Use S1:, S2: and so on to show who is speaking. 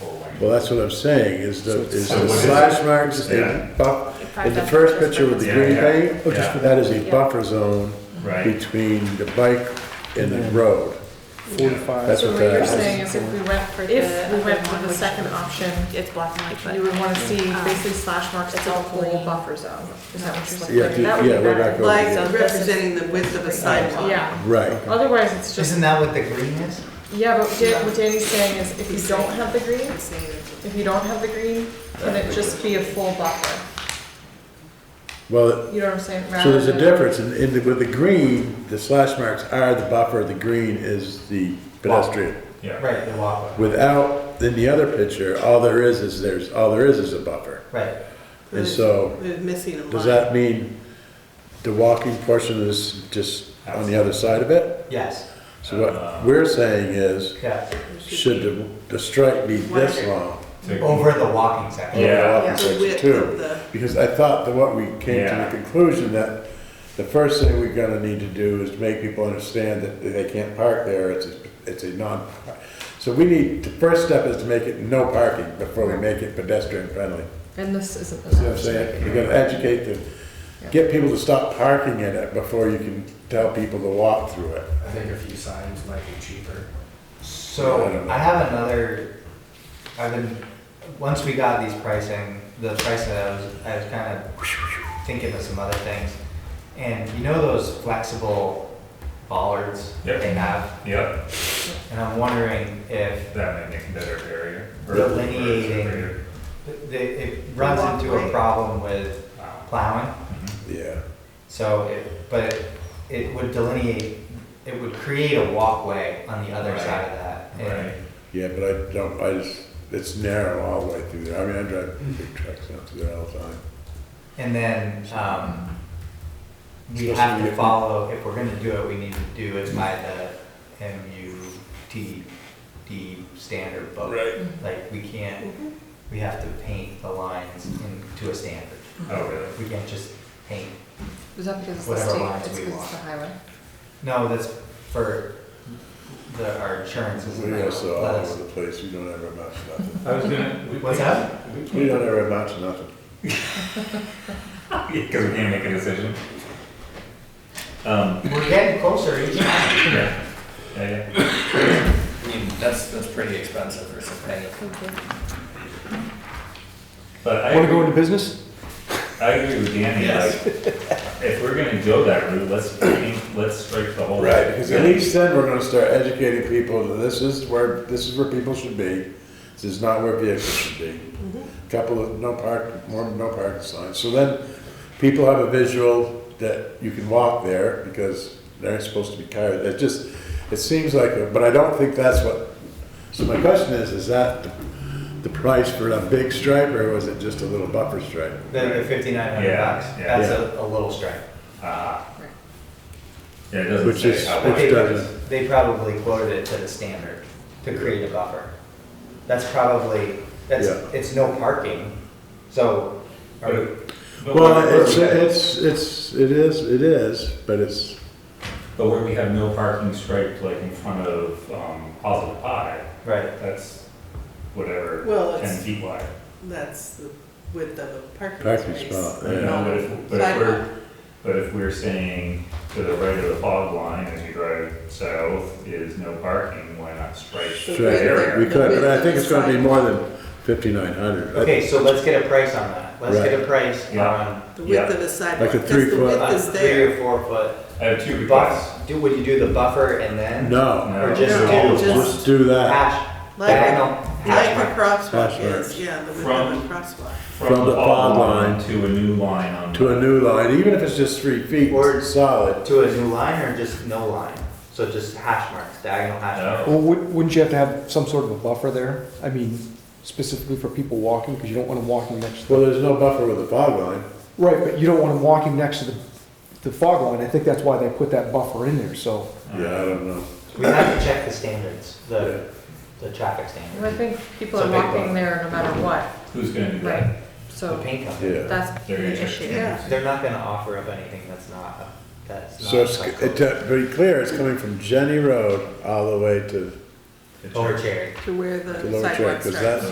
S1: Well, that's what I'm saying, is the, is
S2: So
S1: the
S2: what is
S1: slash marks,
S2: Yeah.
S1: the buff, in the
S3: Five
S1: first
S3: thousand
S1: picture with the
S2: Yeah,
S1: green
S2: yeah.
S1: paint,
S2: Oh, just for
S1: that is a
S3: Yeah.
S1: buffer zone
S2: Right,
S1: between the bike and the road.
S4: Forty-five.
S1: That's
S5: So
S1: what
S5: what you're
S1: that
S5: saying
S1: is.
S5: is if we went for the.
S3: If we went for
S5: other
S3: the
S5: one,
S3: second option, it's black and white, but.
S5: You would wanna see
S3: Um,
S5: basically slash marks
S3: it's
S5: the
S3: a
S5: whole
S3: green.
S5: buffer zone, is that what you're saying?
S1: Yeah, do-
S3: That would be
S1: yeah, we're not
S3: better.
S1: going
S6: Like
S1: to
S3: So this is-
S6: representing the width of a sidewalk.
S5: Yeah,
S1: Right,
S5: otherwise it's just,
S7: Isn't that what the green is?
S5: yeah, but Dan- what Danny's saying is if you don't have the green, if you don't have the green, can it just be a full buffer?
S1: well,
S5: You know what I'm saying?
S1: so there's a
S5: Rather than-
S1: difference, in, in, the- with the green, the slash marks are the buffer, the green is the pedestrian.
S2: yeah.
S7: Right, the walkway.
S1: Without, in the other picture, all there is is there's, all there is is a buffer.
S7: Right.
S1: And so,
S6: We're missing a line.
S1: Does that mean the walking portion is just on the other side of it?
S7: Yes.
S1: So what we're saying is,
S7: Yeah.
S1: should the, the strike be this long?
S2: To-
S7: Over the walking section.
S2: Yeah.
S1: Over the walking
S6: Yeah.
S1: section
S6: The width
S1: too?
S6: of the-
S1: Because I thought that what we came to
S2: Yeah.
S1: the conclusion that the first thing we're gonna need to do is make people understand that they can't park there, it's, a- it's a non. So we need, the first step is to make it no parking before we make it pedestrian friendly.
S5: And this isn't.
S1: See what I'm saying? You gotta educate the, get people to stop parking in it before you can tell people to walk through it.
S8: I think a few signs might be cheaper.
S7: So I have another, I've been, once we got these pricing, the pricing, I was, I was kind of thinking of some other things. And you know those flexible bollards
S2: Yep.
S7: they have?
S2: Yep,
S7: And I'm wondering if
S2: that might make a better barrier. or-
S7: Delineating.
S2: or-
S7: the- it runs into a
S6: Walkway.
S7: problem with plowing.
S1: Yeah.
S7: So it, but it- it would delineate, it would create a walkway on the other
S2: Right.
S7: side of that. And
S2: Right,
S1: Yeah, but I don't, I just, it's narrow all the way through there. I mean, I drive big trucks down through there all the time.
S7: And then, um, we
S1: Especially
S7: have to
S1: if-
S7: follow, if we're gonna do it, we need to do it by the MUTD standard book.
S1: Right.
S7: Like, we can't, we have to paint the lines into a standard.
S2: oh, really?
S7: We can't just paint,
S5: Was that because it's the
S7: Whatever
S5: state,
S7: lines
S5: it's
S7: we
S5: because it's the
S7: want.
S5: highway?
S7: no, that's for the, our insurance isn't
S1: We
S7: let
S1: also all over
S7: us.
S1: the place. We don't ever amount to nothing.
S8: I was gonna.
S7: What's that?
S1: We don't ever amount to nothing.
S2: Because we can't make a decision. Um,
S7: We're getting closer each time.
S2: yeah, yeah, yeah.
S8: I mean, that's, that's pretty expensive for something.
S2: But I
S4: Want to go
S2: agree,
S4: into business?
S2: I agree with Danny, like, if we're gonna go that route, let's, paint- let's strike the whole.
S1: Right, because at
S2: Yeah.
S1: least then we're gonna start educating people that this is where, this is where people should be. This is not where vehicles should be. Couple of no park, more no parking signs. So then people have a visual that you can walk there because they aren't supposed to be tired. It just, it seems like, a- but I don't think that's what, so my question is, is that the- the price for a big stripe or was it just a little buffer stripe?
S7: The fifty-nine hundred
S2: Yeah,
S7: bucks,
S2: yeah.
S7: that's a, a little strike.
S2: Ah. Yeah, it doesn't
S1: Which
S2: say
S1: is-
S2: how.
S1: which
S2: wide.
S7: They,
S1: does-
S7: they probably quoted it to the standard to create a buffer. That's probably, that's,
S1: Yeah.
S7: it's no parking, so, are we-
S2: But
S1: Well,
S2: where-
S1: it's, it's, it's, it is, it is, but it's,
S2: But where we have no parking striped like in front of, um, Positive Pie,
S7: right,
S2: that's whatever,
S6: Well,
S2: ten
S6: it's-
S2: feet wide.
S6: That's the width of a
S1: Parking
S6: parking space.
S1: spot,
S2: You know, but if, but if
S6: Sidewalk.
S2: we're, but if we're saying to the right of the fog line as you drive south is no parking, why not strike
S6: So
S2: the
S1: Sure,
S6: Right
S2: area?
S6: there.
S1: we could, but I think it's gonna be
S6: Right.
S1: more than fifty-nine hundred.
S7: okay, so let's get a price on that, let's get a
S1: Right.
S7: price
S2: Yeah.
S7: on,
S6: The
S2: Yeah.
S6: width of a sidewalk,
S1: Like a
S6: because
S1: three
S6: the
S1: foot-
S6: width
S7: on
S6: is
S7: three
S6: there.
S7: or four foot.
S2: I have two requests.
S7: Buff, do, would you do the buffer and then?
S1: No,
S2: No,
S7: Or just
S6: No,
S7: do
S6: just-
S1: just do that
S7: hash,
S6: Like a-
S7: diagonal,
S6: Like a
S7: hash mark?
S6: crosswalk
S1: Hash
S6: is,
S1: marks.
S6: yeah, the width
S2: From-
S6: of a crosswalk.
S2: From the fog line to a new line on.
S1: to a new line, even if it's just three feet,
S7: Or-
S1: solid.
S7: To a new line or just no line? So just hash marks, diagonal hash
S2: No.
S7: marks?
S4: Well, wouldn't wouldn't you have to have some sort of a buffer there? I mean, specifically for people walking, because you don't want them walking next to,
S1: Well, there's no buffer with the fog line.
S4: right, but you don't want them walking next to the, the fog line. I think that's why they put that buffer in there, so.
S1: Yeah, I don't know.
S7: We have to check the standards, the, the traffic standards.
S5: Well, I think people
S7: It's
S5: are
S7: a big
S5: walking
S7: one.
S5: there no matter what,
S2: Who's gonna do
S5: right?
S2: that?
S7: The
S5: So
S7: paint company,
S1: Yeah.
S5: that's
S2: There you
S5: the
S2: go.
S5: issue.
S6: Yeah.
S7: they're not gonna offer up anything that's not, that's not.
S1: So it's,
S7: like
S1: it- to be clear, it's coming from Jenny Road all the way to
S7: Over Cherry.
S6: To where the
S7: Oh,
S1: to Lower Track,
S6: sidewalk
S1: because
S6: starts.
S1: that's